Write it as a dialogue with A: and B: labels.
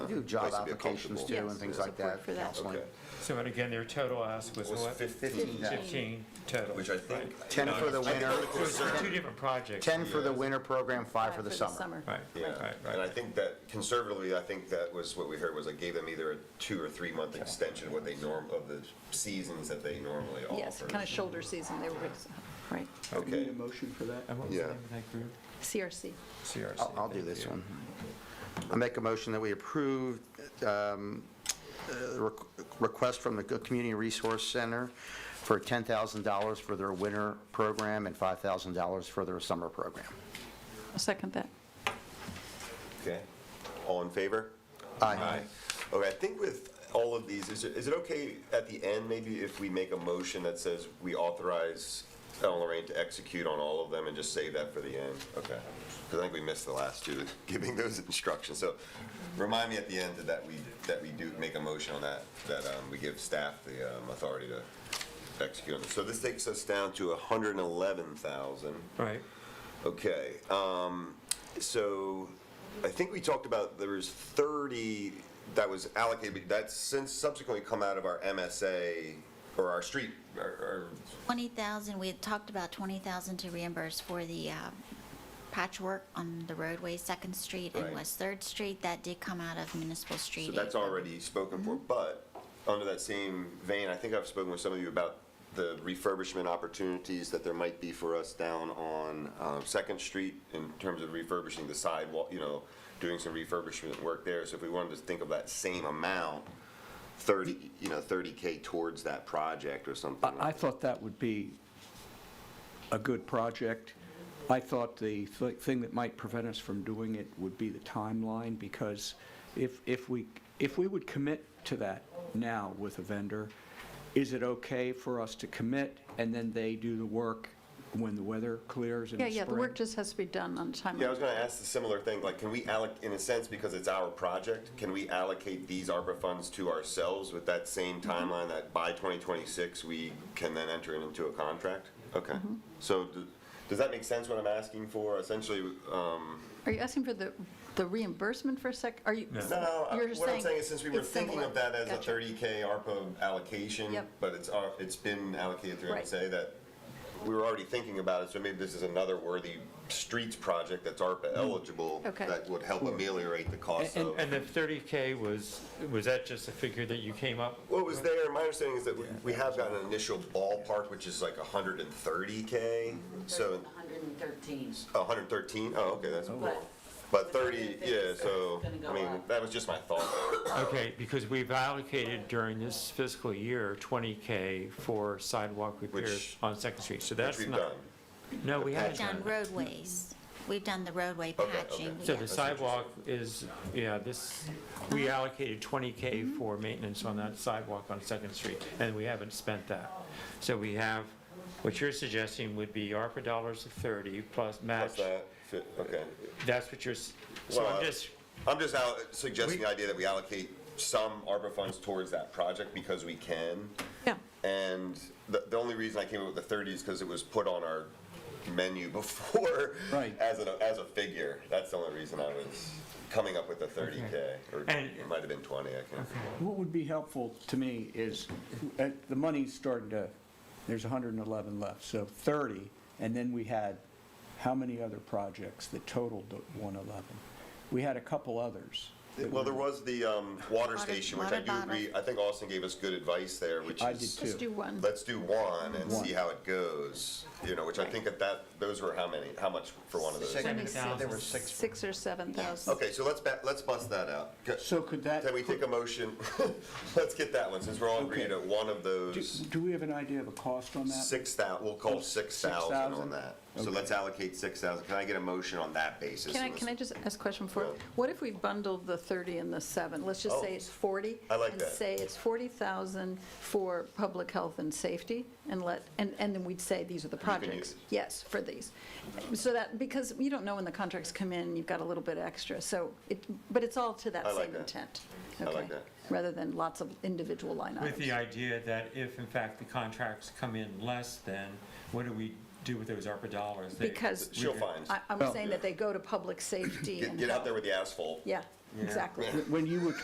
A: do job
B: place to be
A: applications too
B: comfortable.
A: and things
C: Yes,
A: like
C: support
A: that,
C: for that.
A: Councilman.
B: Okay.
D: So, and again, their total ask was
B: Was
D: what?
B: 15.
D: 15 total.
B: Which I think.
D: right.
A: Ten for the
B: I think
A: winter,
B: only
D: So it's for two
B: conservative-
D: different projects.
A: ten for the winter program, five for the summer.
C: summer.
D: Right,
B: Yeah,
D: right, right,
B: and I
D: right.
B: think that conservatively, I think that was what we heard, was I gave them either a two or three month extension of what they norm, of the seasons that they normally offer.
C: Yes, kind of shoulder season, they were, uh, right,
B: Okay,
E: motion for that?
D: And what was the
B: Yeah.
D: name of that group?
C: CRC.
D: CRC.
A: I'll, I'll do
D: thank
A: this
D: you.
A: one. I make a motion that we approve um, uh, requ- request from the Community Resource Center for $10,000 for their winter program and $5,000 for their summer program.
C: I'll second that.
B: okay. All in favor?
A: Aye.
B: Okay, I think with all of these, is it, is it okay at the end, maybe if we make a motion that says we authorize Ellen Lorraine to execute on all of them and just save that for the end? Okay, because I think we missed the last two, giving those instructions. So remind me at the end that we, that we do make a motion on that, that um, we give staff the um, authority to execute on this. So this takes us down to 111,000.
D: Right,
B: Okay, um, so I think we talked about there was thirty that was allocated, but that's since subsequently come out of our MSA or our street, our, our,
F: 20,000, we had talked about 20,000 to reimburse for the uh, patchwork on the roadway, Second Street
B: Right.
F: and West Third Street. That did come out of municipal street.
B: so that's
F: aid.
B: already spoken for, but under that same vein, I think I've spoken with some of you about the refurbishment opportunities that there might be for us down on, um, Second Street in terms of refurbishing the sidewalk, you know, doing some refurbishment work there, so if we wanted to think of that same amount, 30, you know, 30K towards that project or something like
E: I, I thought that would be a good project. I thought the th- thing that might prevent us from doing it would be the timeline, because if, if we, if we would commit to that now with a vendor, is it okay for us to commit, and then they do the work when the weather clears in the
C: Yeah,
E: spring?
C: yeah, the work just has to be done on time.
B: Yeah, I was gonna ask the similar thing, like, can we alloc, in a sense, because it's our project, can we allocate these ARPA funds to ourselves with that same
C: Mm-hmm.
B: timeline that by 2026, we can then enter it into a contract? Okay,
C: Mm-hmm.
B: so d- does that make sense what I'm asking for? Essentially, um,
C: Are you asking for the, the reimbursement for a sec, are you?
D: No.
B: no, I-
C: you're
B: uh, what I'm saying is since we were
C: it's
B: thinking
C: similar.
B: of that as a
C: Gotcha.
B: 30K ARPA allocation,
C: Yep.
B: but it's, al- it's been allocated through
C: Right.
B: MSA that we were already thinking about it, so maybe this is another worthy streets project that's ARPA eligible
C: Okay.
B: that would help ameliorate the cost
E: And-
B: of.
D: Mm. and the 30K was, was that just a figure that you came up?
B: What was there, my understanding is that we- we have got an initial ballpark, which is like 130K, so,
G: 113.
B: 113, oh, okay, that's more.
G: But-
B: But 30, yeah, so,
G: It's gonna
B: I
G: go
B: mean,
G: up.
B: that was just my thought.
D: Okay, because we've allocated during this fiscal year 20K for sidewalk repairs
B: Which-
D: on Second Street, so
B: Which
D: that's
B: we've
D: not.
B: done.
D: No, we haven't
F: We've done
D: done that.
F: roadways. We've done the roadway
B: Okay,
F: patching.
B: okay.
D: So
F: yeah.
D: the sidewalk is, yeah, this, we allocated
B: Mm-hmm.
D: 20K for maintenance on that sidewalk on Second Street, and we haven't spent that. So we have, what you're suggesting would be ARPA dollars of 30 plus
B: Plus
D: match.
B: that, fi- okay.
D: That's what you're, s- so
B: Well,
D: I'm
B: I-
D: just,
B: I'm just out suggesting the idea that we allocate some ARPA funds towards that project because we can.
C: Yeah,
B: And the, the only reason I came up with the 30 is because it was put on our menu before
E: Right.
B: as, a, as a figure. That's the only reason I was coming up with the 30K. Or
D: And-
B: it might have been 20, I can't
E: What would be helpful to me is, uh, the money's starting to, there's 111 left, so 30, and then we had how many other projects that totaled the 111? We had a couple others. that
B: Well,
E: were-
B: there was the um, water
F: Water-
B: station, which I
F: water
B: do agree,
F: bottle.
B: I think Austin gave us good advice there, which
E: I
B: is,
E: did
C: just
E: Two.
C: do one.
B: let's do one and see
E: One.
B: how it goes, you know, which I think that that, those were how many, how much for one of those?
A: Six-
D: Seven thousand.
A: There were six.
C: Six or seven thousand.
B: Okay, so let's, ba- let's bust that out. Go-
E: So could that?
B: Can we take a motion? Let's get that one, since we're all agreed
E: Okay.
B: at one of
E: Do
B: those.
E: do we have an idea of a cost on that?
B: Six thou, we'll call six thousand
E: 6,000?
B: on that. So
E: Okay.
B: let's allocate six thousand. Can I get a motion on that basis?
C: Can I,
B: And
C: can I
B: let's-
C: just ask a question for,
B: Yeah.
C: what if we bundled the 30 and the 7? Let's just say
B: Oh,
C: it's 40.
B: I like that.
C: And say it's 40,000 for public health and safety, and let, and, and then we'd say, these are the
B: can
C: projects.
B: use it.
C: Yes, for these. So that, because you don't know when the contracts come in, you've got a little bit extra, so it, but it's all to that
B: I like
C: same
B: that.
C: intent.
B: I like
C: okay?
B: that.
C: Rather than lots of individual line
D: with the
B: uh,
C: items.
D: idea that if in fact the contracts come in less than, what do we do with those ARPA dollars? They-
C: Because
B: She'll find.
C: I, I'm
E: Well-
C: saying that they go to public safety
B: Get,
C: and
B: get out
C: health.
B: there with the asphalt.
C: Yeah, exactly.
E: When you were